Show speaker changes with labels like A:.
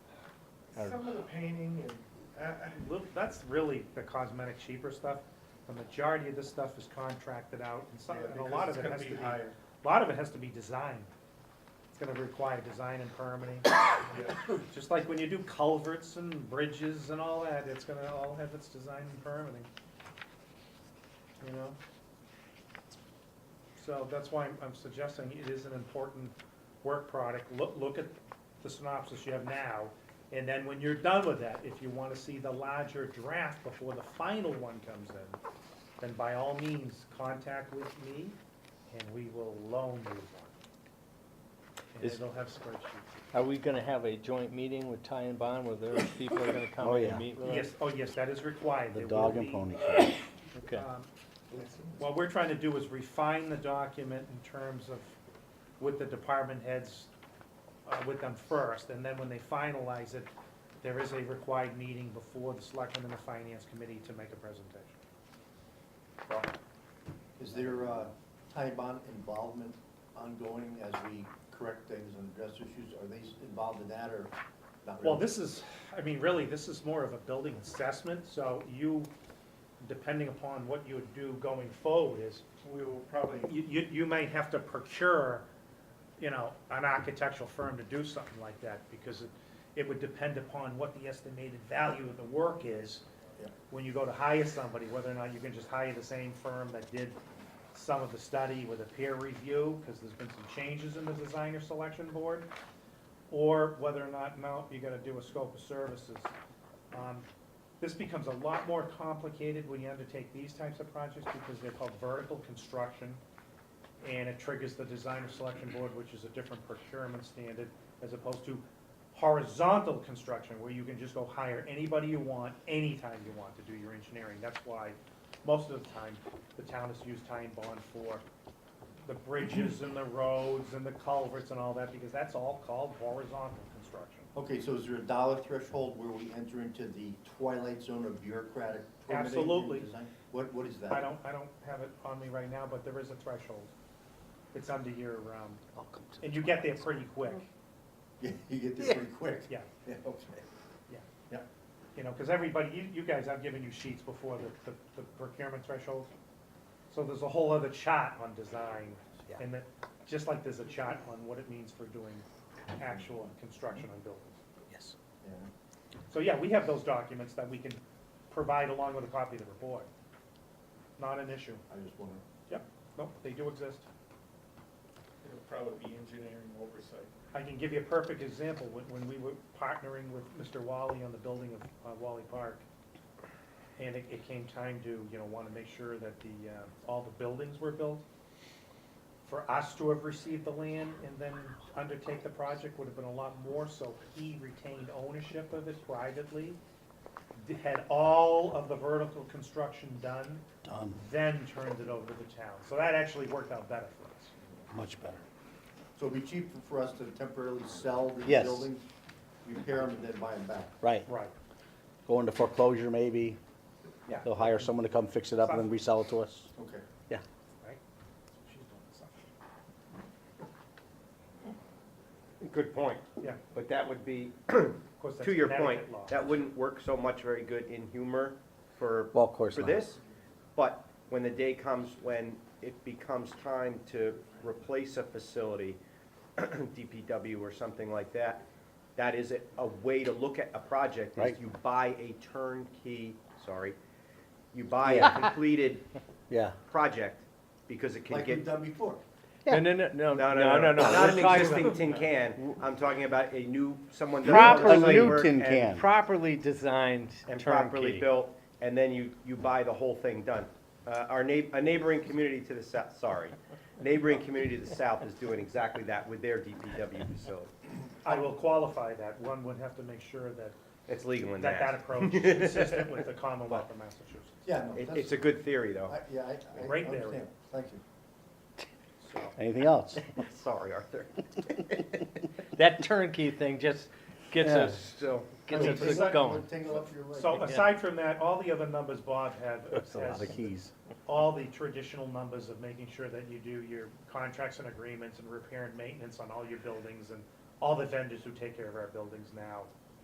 A: are,
B: Some of the painting and, uh, uh,
A: little- that's really the cosmetic cheaper stuff. The majority of this stuff is contracted out, and some,
B: yeah,
A: and a lot
B: because
A: of
B: it's
A: it
B: gonna
A: has to
B: be
A: be,
B: higher.
A: a lot of it has to be designed. It's gonna require design and permitting,
B: Yeah,
A: just like when you do culverts and bridges and all that, it's gonna all have its design and permitting. You know? So that's why I'm, I'm suggesting it is an important work product, look, look at the synopsis you have now, and then when you're done with that, if you wanna see the larger draft before the final one comes in, then by all means, contact with me, and we will loan you one. And
C: Is-
A: it'll have spreadsheets.
C: Are we gonna have a joint meeting with Ty and Bond, where those people are gonna come
D: Oh,
C: in
D: yeah.
C: and meet with us?
A: Yes, oh yes, that is required.
D: the
A: There
D: dog
A: will
D: and
A: be,
D: pony show.
C: Okay,
E: Uh,
A: um, What we're trying to do is refine the document in terms of, with the department heads, uh, with them first, and then when they finalize it, there is a required meeting before the selectmen and the finance committee to make a presentation.
F: Is there uh, time bond involvement ongoing as we correct things and address issues? Are they s- involved in that or not
A: Well,
F: really?
A: this is, I mean, really, this is more of a building assessment, so you, depending upon what you would do going forward is,
B: we will probably,
A: you, you, you may have to procure, you know, an architectural firm to do something like that, because it, it would depend upon what the estimated value of the work is
F: Yeah.
A: when you go to hire somebody, whether or not you can just hire the same firm that did some of the study with a peer review, because there's been some changes in the designer selection board, or whether or not, no, you gotta do a scope of services. Um, This becomes a lot more complicated when you undertake these types of projects, because they're called vertical construction, and it triggers the designer selection board, which is a different procurement standard, as opposed to horizontal construction, where you can just go hire anybody you want, anytime you want to do your engineering. That's why, most of the time, the town has used tie and bond for the bridges and the roads and the culverts and all that, because that's all called horizontal construction.
F: Okay, so is there a dollar threshold where we enter into the twilight zone of bureaucratic permitting? and
A: Absolutely.
F: design? What, what is that?
A: I don't, I don't have it on me right now, but there is a threshold. It's under your, um,
C: I'll come to
A: and you get there pretty quick,
F: Yeah, You get there pretty quick.
A: yeah.
F: Yeah, okay.
A: You know, because everybody, you, you guys, I've given you sheets before the, the- the procurement threshold. So there's a whole other chart on design, and that, just like there's a chart on what it means for doing actual construction on buildings.
C: yes.
F: Yeah.
A: So, yeah, we have those documents that we can provide along with a copy of the report. Not an issue.
F: I just wonder.
A: Nope, they do exist.
B: it'll probably be engineering oversight.
A: I can give you a perfect example, when, when we were partnering with Mr. Wally on the building of uh, Wally Park. And it, it came time to, you know, wanna make sure that the, uh, all the buildings were built. For us to have received the land and then undertake the project would have been a lot more, so he retained ownership of it privately. d- Had all of the vertical construction done,
D: Done,
A: then turned it over to the town, so that actually worked out better for us.
D: much better.
F: So it'd be cheaper for us to temporarily sell the
D: Yes.
F: buildings, repair them, and then buy them back.
D: Right,
A: Right.
D: go into foreclosure maybe,
A: Yeah.
D: they'll hire someone to come fix it up and then resell it to us.
F: Okay.
A: Right? That's what she's doing, so.
E: Good point.
A: Yeah.
E: But that would be,
A: Of course, that's
E: to your point,
A: Connecticut law.
E: that wouldn't work so much very good in humor for,
D: Well, of course
E: for
D: not.
E: this. But when the day comes when it becomes time to replace a facility, DPW or something like that, that is a, a way to look at a project, is
D: Right.
E: you buy a turnkey, sorry, you buy a completed
D: Yeah,
E: project because it can
F: Like we've
E: get.
F: done before.
C: No, no, no, no, no, no, no.
E: Not an
C: We're talking
E: existing tin can, I'm talking about a new, someone. does all the
D: a
E: site
D: new
E: work
D: tin
E: and-
D: can.
C: Properly designed
E: and properly
C: turnkey.
E: built, and then you, you buy the whole thing done. Uh, Our neigh, a neighboring community to the south, sorry, neighboring community to the south is doing exactly that with their DPW facility.
A: I will qualify that. One would have to make sure that,
E: It's legal in
A: that that
E: that.
A: approach is consistent with the Commonwealth of Massachusetts.
F: Yeah, no,
E: It,
F: that's.
E: it's a good theory, though.
F: I- Yeah, I, I
A: Right there.
F: understand. Thank you.
A: So,
D: anything else?
E: Sorry, Arthur.
C: That turnkey thing just gets
D: Yeah.
C: us,
E: So,
C: gets
F: We'll
C: us
F: tingle- we'll
C: going.
F: tingle up your leg.
A: so aside from that, all the other numbers Bob had,
D: That's a lot
A: has
D: of keys.
A: all the traditional numbers of making sure that you do your contracts and agreements and repair and maintenance on all your buildings and all the vendors who take care of our buildings now.